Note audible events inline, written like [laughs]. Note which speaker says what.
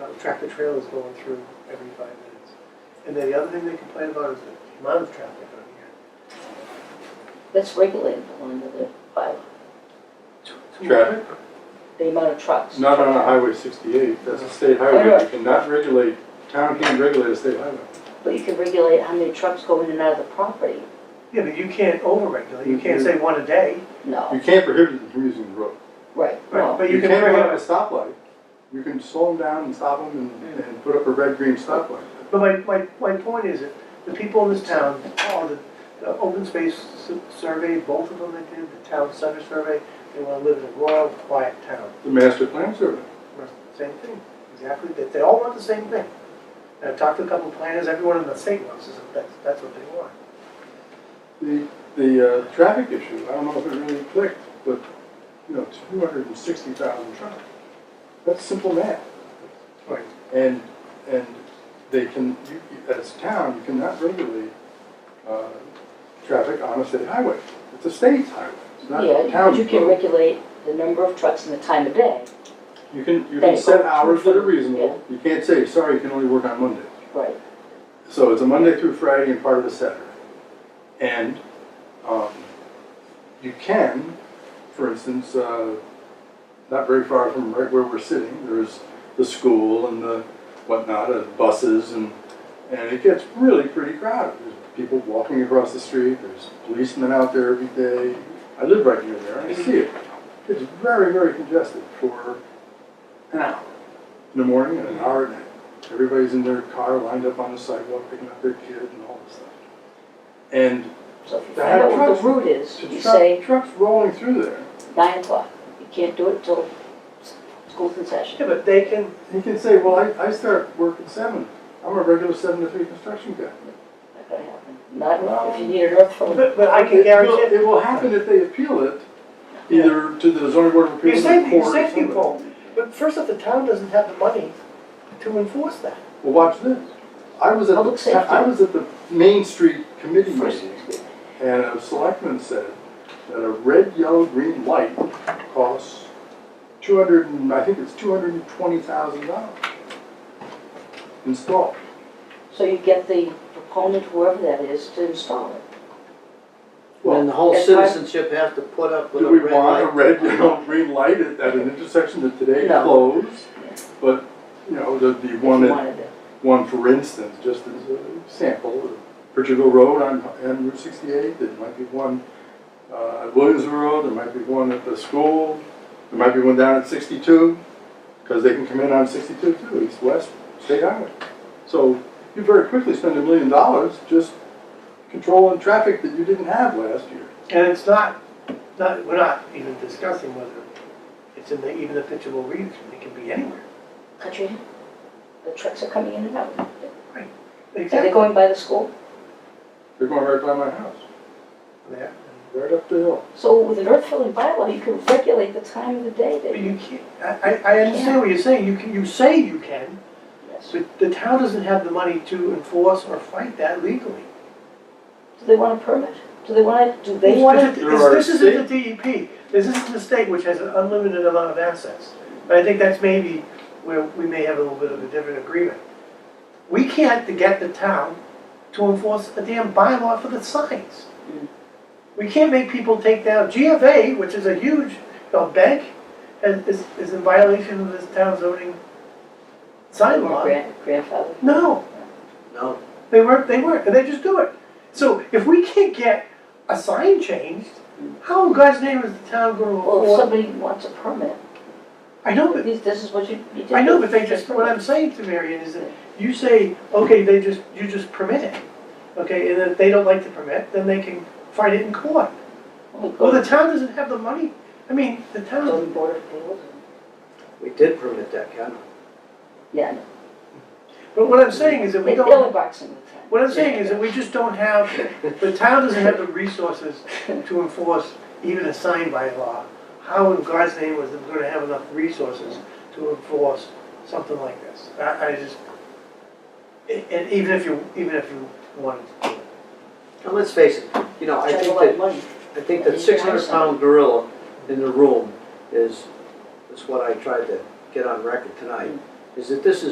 Speaker 1: uh, tractor trailers going through every five minutes. And then the other thing they complain about is the amount of traffic on here.
Speaker 2: That's regulated under the, by
Speaker 1: Two
Speaker 3: Traffic.
Speaker 1: hundred?
Speaker 2: the amount of trucks.
Speaker 3: Not on a Highway 68, that's a state highway, you cannot regulate, town can't regulate a state highway.
Speaker 2: But you can regulate how many trucks go in and out of the property.
Speaker 1: Yeah, but you can't overregulate, you can't say
Speaker 3: Mm-hmm.
Speaker 1: one a day,
Speaker 3: You
Speaker 2: No,
Speaker 3: can't prohibit them from using the road.
Speaker 2: right, no.
Speaker 1: but you
Speaker 3: You
Speaker 1: can.
Speaker 3: can't
Speaker 1: regulate-
Speaker 3: have a stoplight, you can slow them down and stop them and, and put up a red-green stoplight.
Speaker 1: But my, my, my point is that the people in this town, all the, the open space su- survey, both of them they did, the town center survey, they wanna live in a rural, quiet town.
Speaker 3: The master plan survey.
Speaker 1: Same thing, exactly, that they all want the same thing. And I've talked to a couple of planners, everyone in the state wants this, that's, that's what they want.
Speaker 3: The, the uh, traffic issue, I don't know if it really clicked, but, you know, 260,000 trucks. That's simple math.
Speaker 1: Right.
Speaker 3: And, and they can, you- you- as a town, you cannot regulate uh, traffic on a state highway. It's a state's highway, it's not a
Speaker 2: Yeah, but
Speaker 3: town's
Speaker 2: you can
Speaker 3: road.
Speaker 2: regulate the number of trucks and the time of day,
Speaker 3: You can, you
Speaker 2: They
Speaker 3: can set
Speaker 2: go
Speaker 3: hours
Speaker 2: through-
Speaker 3: that are reasonable. You can't say, sorry, you can only work on Monday.
Speaker 2: right.
Speaker 3: So it's a Monday through Friday and part of a Saturday. And um, you can, for instance, uh, not very far from right where we're sitting, there's the school and the whatnot, and buses, and, and it gets really pretty crowded. There's people walking across the street, there's policemen out there every day. I live right near there, and I see it. It's very, very congested for an hour in the morning and an hour at night. Everybody's in their car lined up on the sidewalk picking up their kid and all this stuff. And
Speaker 2: So if you
Speaker 3: They
Speaker 2: find
Speaker 3: have
Speaker 2: out what
Speaker 3: trucks.
Speaker 2: the route is,
Speaker 3: to
Speaker 2: you
Speaker 3: truck,
Speaker 2: say
Speaker 3: trucks rolling through there,
Speaker 2: nine o'clock. You can't do it till s- school's in session.
Speaker 1: Yeah, but they can,
Speaker 3: he can say, well, I, I start work at seven. I'm a regular seven to three construction guy.
Speaker 2: Not gonna happen. Not if you need an earth phone.
Speaker 1: but, but I can guarantee
Speaker 3: It will-
Speaker 1: it.
Speaker 3: It will happen if they appeal it, either to the zoning board of
Speaker 1: You're
Speaker 3: appeals or
Speaker 1: safe,
Speaker 3: the court
Speaker 1: you're
Speaker 3: or
Speaker 1: safe
Speaker 3: somebody.
Speaker 1: people, but first off, the town doesn't have the money to enforce that.
Speaker 3: Well, watch this. I was at,
Speaker 2: Public
Speaker 3: the- I
Speaker 2: safety.
Speaker 3: was at the Main Street Committee
Speaker 2: First,
Speaker 3: meeting. And a selectman said that a red, yellow, green light costs two hundred and, I think it's two hundred and twenty thousand dollars installed.
Speaker 2: So you get the proponent, whoever that is, to install it.
Speaker 3: Well,
Speaker 4: Then the whole
Speaker 2: that's why-
Speaker 4: citizenship has to put up with a
Speaker 3: Do we
Speaker 4: red
Speaker 3: want a
Speaker 4: light.
Speaker 3: red, yellow, green light at, at an intersection that today
Speaker 2: No.
Speaker 3: closed? But, you know, the, the
Speaker 2: If you
Speaker 3: one that
Speaker 2: wanted it.
Speaker 3: one, for instance, just as a sample, Portugal Road on, on Route sixty-eight, there might be one, uh, at Williams Road, there might be one at the school, there might be one down at sixty-two, because they can come in on sixty-two too, east-west state highway. So you very quickly spend a million dollars just controlling traffic that you didn't have last year.
Speaker 1: And it's not, not, we're not even discussing whether it's in the, even the pitchable region, it can be anywhere.
Speaker 2: Country, the trucks are coming in and out. Are they
Speaker 1: Exactly.
Speaker 2: going by the school?
Speaker 3: They're going right by my house,
Speaker 1: Yeah.
Speaker 3: right up the hill.
Speaker 2: So with an earth filling bylaw, you can regulate the time of the day
Speaker 1: But
Speaker 2: that you,
Speaker 1: you can't, I, I, I understand what you're saying, you can, you say you can,
Speaker 2: yes. Do
Speaker 1: but the town doesn't have the money to enforce or fight that legally.
Speaker 2: they want a permit? Do they want to, do they want to?
Speaker 1: This
Speaker 3: There are
Speaker 1: isn't- this isn't the DEP, E this isn't the state which has an unlimited amount of assets. But I think that's maybe where we may have a little bit of a different agreement. We can't to get the town to enforce a damn bylaw for the signs. We can't make people take down, GFA, which is a huge, you know, bank, is, is- is in violation of this town zoning sign law.
Speaker 2: Grand- Grandfather?
Speaker 1: No,
Speaker 4: No,
Speaker 1: they weren't, they weren't, and they just do it. So if we can't get a sign changed, how in God's name is the town gonna
Speaker 2: Well, if
Speaker 1: afford?
Speaker 2: somebody wants a permit,
Speaker 1: I know, but,
Speaker 2: this, this is what you, you did.
Speaker 1: I know, but they just, what I'm saying to Marion is that you say, okay, they just, you just permit it. Okay, and if they don't like the permit, then they can fight it in court.
Speaker 2: Well,
Speaker 1: Well, the
Speaker 2: the
Speaker 1: town doesn't have the money, I mean, the town,
Speaker 2: zoning board of appeals.
Speaker 4: we did permit that,
Speaker 3: [laughs]
Speaker 4: Ken.
Speaker 2: Yeah, I know.
Speaker 1: but what I'm saying is that we
Speaker 2: They-
Speaker 1: don't.
Speaker 2: they'll box in the time.
Speaker 1: What I'm saying is that we just don't have, the town doesn't have the resources to enforce even a sign by law. How in God's name was it gonna have enough resources to enforce something like this? I, I just, and- and even if you, even if you wanted to do it.
Speaker 4: And let's face it, you know, I
Speaker 2: Charge a
Speaker 4: think
Speaker 2: lot of
Speaker 4: that,
Speaker 2: money.
Speaker 4: I think that six hundred pound gorilla in
Speaker 3: Hmm.
Speaker 4: the room is, is what I tried to get on record tonight, is that this is